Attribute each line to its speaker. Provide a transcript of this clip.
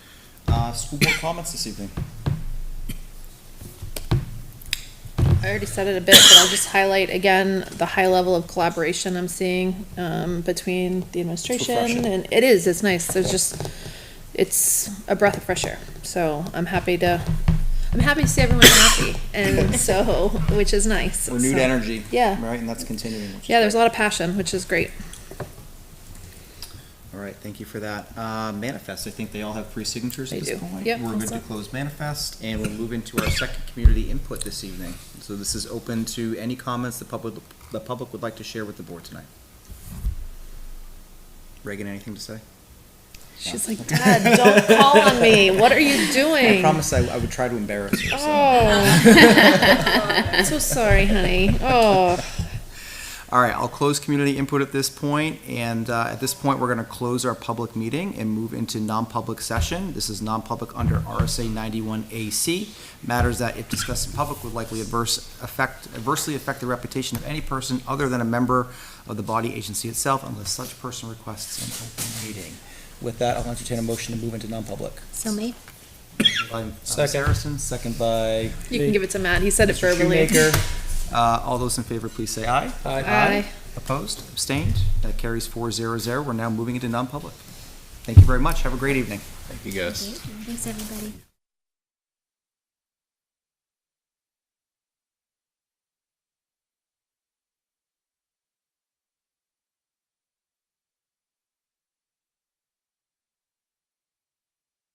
Speaker 1: Uh, school board comments this evening?
Speaker 2: I already said it a bit, but I'll just highlight again the high level of collaboration I'm seeing um, between the administration
Speaker 1: refreshing.
Speaker 2: and it is, it's nice. There's just, it's a breath of fresh air. So I'm happy to, I'm happy to see everyone happy and so, which is nice.
Speaker 1: Renewed
Speaker 2: So-
Speaker 1: energy.
Speaker 2: Yeah.
Speaker 1: Right, and that's continuing. which is
Speaker 2: Yeah, there's a
Speaker 1: great.
Speaker 2: lot of passion, which is great.
Speaker 1: All right, thank you for that. Uh, manifest, I think they all have three signatures at
Speaker 2: They
Speaker 1: this
Speaker 2: do.
Speaker 1: point.
Speaker 2: Yep,
Speaker 1: We're
Speaker 2: all
Speaker 1: good to
Speaker 2: set.
Speaker 1: close manifest, and we'll move into our second community input this evening. So this is open to any comments the public, the public would like to share with the board tonight. Reagan, anything to say?
Speaker 2: She's like, Dad, don't call on me. What are you doing?
Speaker 1: I promise I, I would try to embarrass her, so.
Speaker 2: Oh. I'm so sorry, honey. Oh.
Speaker 1: All right, I'll close community input at this point, and uh, at this point, we're going to close our public meeting and move into non-public session. This is non-public under RSA 91AC. Matters that if discussed in public would likely adverse affect, adversely affect the reputation of any person other than a member of the body agency itself unless such person requests an open meeting. With that, I'll entertain a motion to move into non-public.
Speaker 3: So me.
Speaker 1: By, uh,
Speaker 4: Second.
Speaker 1: Saracen, second by
Speaker 2: You can give it to Matt. He said it
Speaker 1: Mr.
Speaker 2: verbally.
Speaker 1: Shoemaker. Uh, All those in favor, please say aye.
Speaker 2: Aye.
Speaker 1: Opposed, abstained, that carries four zero zero. We're now moving into non-public. Thank you very much, have a great evening.
Speaker 3: Thanks, everybody.